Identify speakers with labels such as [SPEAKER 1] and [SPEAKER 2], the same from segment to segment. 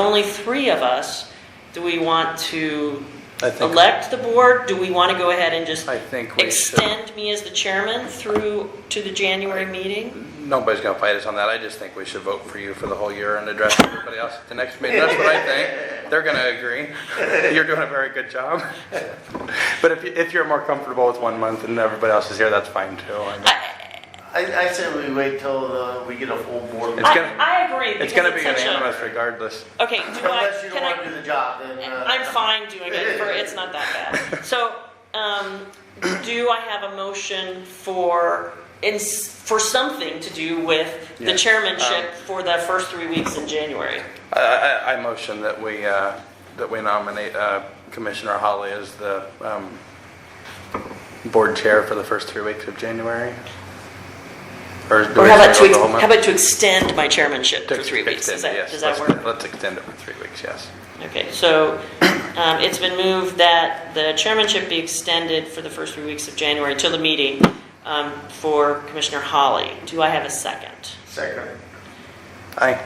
[SPEAKER 1] only three of us, do we want to
[SPEAKER 2] I think-
[SPEAKER 1] elect the board? Do we want to go ahead and just
[SPEAKER 2] I think we should.
[SPEAKER 1] extend me as the chairman through to the January meeting?
[SPEAKER 2] Nobody's gonna fight us on that. I just think we should vote for you for the whole year and address everybody else at the next meeting. That's what I think. They're gonna agree. You're doing a very good job. But if, you- if you're more comfortable with one month and everybody else is here, that's fine too. I mean,
[SPEAKER 3] I, I say we wait till uh, we get a full board.
[SPEAKER 2] It's
[SPEAKER 1] I,
[SPEAKER 2] gonna-
[SPEAKER 1] I agree.
[SPEAKER 2] It's
[SPEAKER 1] because
[SPEAKER 2] gonna be
[SPEAKER 1] such a-
[SPEAKER 2] unanimous regardless.
[SPEAKER 1] Okay, do I,
[SPEAKER 3] Unless you don't
[SPEAKER 1] can I
[SPEAKER 3] want to do the job, then. uh,
[SPEAKER 1] I'm fine doing it for, it's not that bad. So, um, do I have a motion for, in, for something to do with the
[SPEAKER 2] Yeah.
[SPEAKER 1] chairmanship
[SPEAKER 2] Um,
[SPEAKER 1] for the first three weeks in January?
[SPEAKER 2] I, I, I motion that we, uh, that we nominate uh, Commissioner Holly as the um, board chair for the first three weeks of January. Or do
[SPEAKER 1] Or
[SPEAKER 2] we
[SPEAKER 1] how
[SPEAKER 2] have
[SPEAKER 1] about to,
[SPEAKER 2] to go
[SPEAKER 1] ex-
[SPEAKER 2] the whole month?
[SPEAKER 1] how about to extend my chairmanship for
[SPEAKER 2] Ex-
[SPEAKER 1] three weeks? Does
[SPEAKER 2] extend it,
[SPEAKER 1] that,
[SPEAKER 2] yes.
[SPEAKER 1] does that
[SPEAKER 2] Let's-
[SPEAKER 1] work?
[SPEAKER 2] Let's extend it for three weeks, yes.
[SPEAKER 1] Okay, so, um, it's been moved that the chairmanship be extended for the first three weeks of January till the meeting, um, for Commissioner Holly. Do I have a second?
[SPEAKER 3] Second.
[SPEAKER 2] Aye.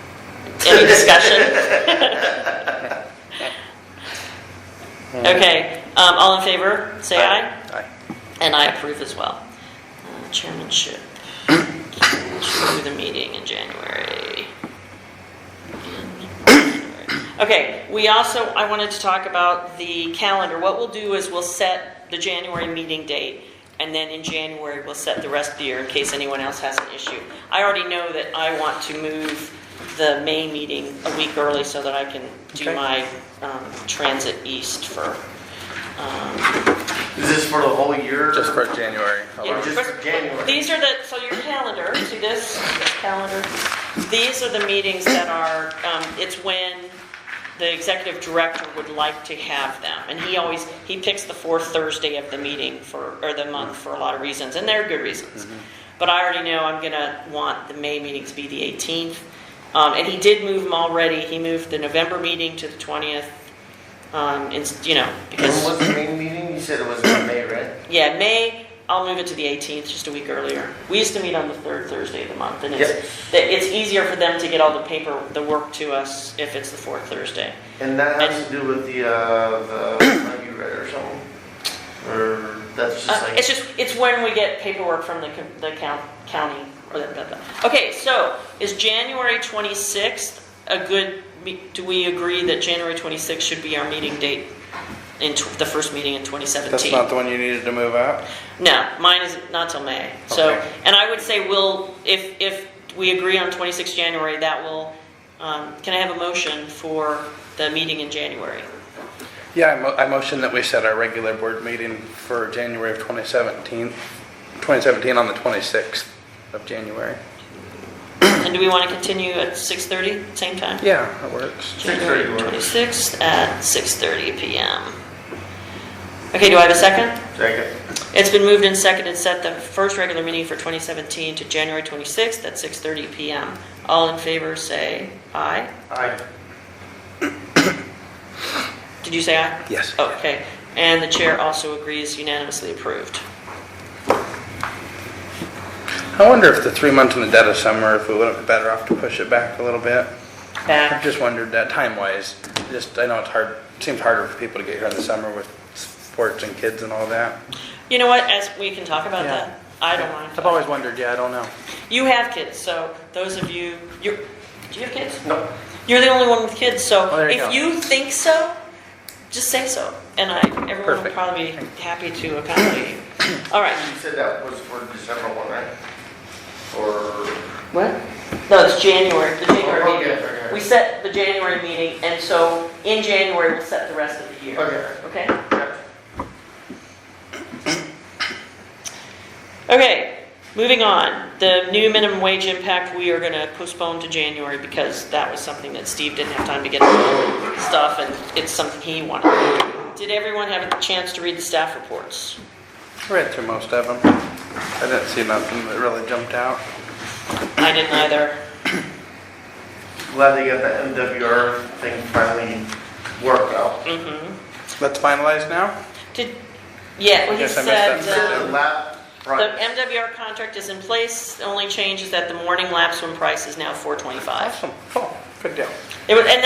[SPEAKER 1] Any discussion? Okay, um, all in favor, say aye.
[SPEAKER 2] Aye.
[SPEAKER 1] And I approve as well. Uh, Chairmanship to the meeting in January. Okay, we also, I wanted to talk about the calendar. What we'll do is we'll set the January meeting date, and then in January, we'll set the rest of the year in case anyone else has an issue. I already know that I want to move the May meeting a week early so that I can do
[SPEAKER 2] Okay.
[SPEAKER 1] my um, transit east for
[SPEAKER 3] Is this for the whole year?
[SPEAKER 2] Just for January.
[SPEAKER 1] Yeah,
[SPEAKER 2] alone.
[SPEAKER 3] just
[SPEAKER 1] first-
[SPEAKER 3] for January.
[SPEAKER 1] These are the, so your calendar, see this, this calendar? These are the meetings that are, um, it's when the executive director would like to have them. And he always, he picks the fourth Thursday of the meeting for, or the month for a lot of reasons, and they're good reasons.
[SPEAKER 3] Mm-hmm.
[SPEAKER 1] But I already know I'm gonna want the May meeting to be the 18th. Um, and he did move them already. He moved the November meeting to the 20th, um, it's, you know,
[SPEAKER 3] When
[SPEAKER 1] because.
[SPEAKER 3] was the main meeting? You said it was in May, right?
[SPEAKER 1] Yeah, May, I'll move it to the 18th, just a week earlier. We used to meet on the third Thursday of the month, and it's,
[SPEAKER 3] Yep.
[SPEAKER 1] that it's easier for them to get all the paper, the work to us if it's the fourth Thursday.
[SPEAKER 3] And that has to do with the, uh, the, like you read or something? Or that's just
[SPEAKER 1] Uh, It's
[SPEAKER 3] like,
[SPEAKER 1] just, it's when we get paperwork from the, co- the coun- county, or the, the- the- okay, so, is January 26th a good, me- do we agree that January 26th should be our meeting date in tw- the first meeting in 2017?
[SPEAKER 2] That's not the one you needed to move out?
[SPEAKER 1] No, mine is not till May. So,
[SPEAKER 2] Okay.
[SPEAKER 1] and I would say we'll, if, if we agree on 26 January, that will, um, can I have a motion for the meeting in January?
[SPEAKER 2] Yeah, I mo- I motion that we set our regular board meeting for January of 2017, 2017 on the 26th of January.
[SPEAKER 1] And do we want to continue at 6:30, same time?
[SPEAKER 2] Yeah, that works.
[SPEAKER 3] 6:30
[SPEAKER 1] January
[SPEAKER 3] works.
[SPEAKER 1] 26th at 6:30 PM. Okay, do I have a second?
[SPEAKER 3] second.
[SPEAKER 1] It's been moved and seconded, set the first regular meeting for 2017 to January 26th at 6:30 PM. All in favor, say aye.
[SPEAKER 3] Aye.
[SPEAKER 1] Did you say aye?
[SPEAKER 2] Yes.
[SPEAKER 1] Okay, and the chair also agrees unanimously approved.
[SPEAKER 2] I wonder if the three months in the dead of summer, if we wouldn't be better off to push it back a little bit? I've
[SPEAKER 1] Back,
[SPEAKER 2] just wondered that time-wise, just, I know it's hard, seems harder for people to get here in the summer with sports and kids and all that.
[SPEAKER 1] you know what, as, we can talk about
[SPEAKER 2] Yeah.
[SPEAKER 1] that. I don't mind.
[SPEAKER 2] I've always wondered, yeah, I don't know.
[SPEAKER 1] You have kids, so those of you, you, do you have kids?
[SPEAKER 3] No.
[SPEAKER 1] You're the only one with kids,
[SPEAKER 2] Oh,
[SPEAKER 1] so
[SPEAKER 2] there you go.
[SPEAKER 1] if you think so, just say so. And I, everyone will
[SPEAKER 2] Perfect.
[SPEAKER 1] probably be happy to accommodate you. All right.
[SPEAKER 3] You said that was for December one, right? Or?
[SPEAKER 1] What? No, it's January, the January
[SPEAKER 3] Oh, okay,
[SPEAKER 1] meeting.
[SPEAKER 3] okay.
[SPEAKER 1] We set the January meeting, and so in January, we'll set the rest of the year.
[SPEAKER 3] Okay.
[SPEAKER 1] Okay?
[SPEAKER 3] yeah.
[SPEAKER 1] Okay, moving on. The new minimum wage impact, we are going to postpone to January because that was something that Steve didn't have time to get the stuff, and it's something he wanted. to do. Did everyone have a chance to read the staff reports?
[SPEAKER 2] I read through most of them. I didn't see nothing that really jumped out.
[SPEAKER 1] I didn't either.
[SPEAKER 3] Glad they got that MWR thing finally worked out.
[SPEAKER 2] Let's finalize now?
[SPEAKER 1] Mm-hmm. Did, yeah, well, he
[SPEAKER 2] Yes, I missed that.
[SPEAKER 1] said,
[SPEAKER 3] Said
[SPEAKER 1] um,
[SPEAKER 3] the lab
[SPEAKER 1] the
[SPEAKER 3] project.
[SPEAKER 1] MWR contract is in place. The only change is that the morning lapse swim price is now 425.
[SPEAKER 2] Awesome, cool, good deal.
[SPEAKER 1] It would, and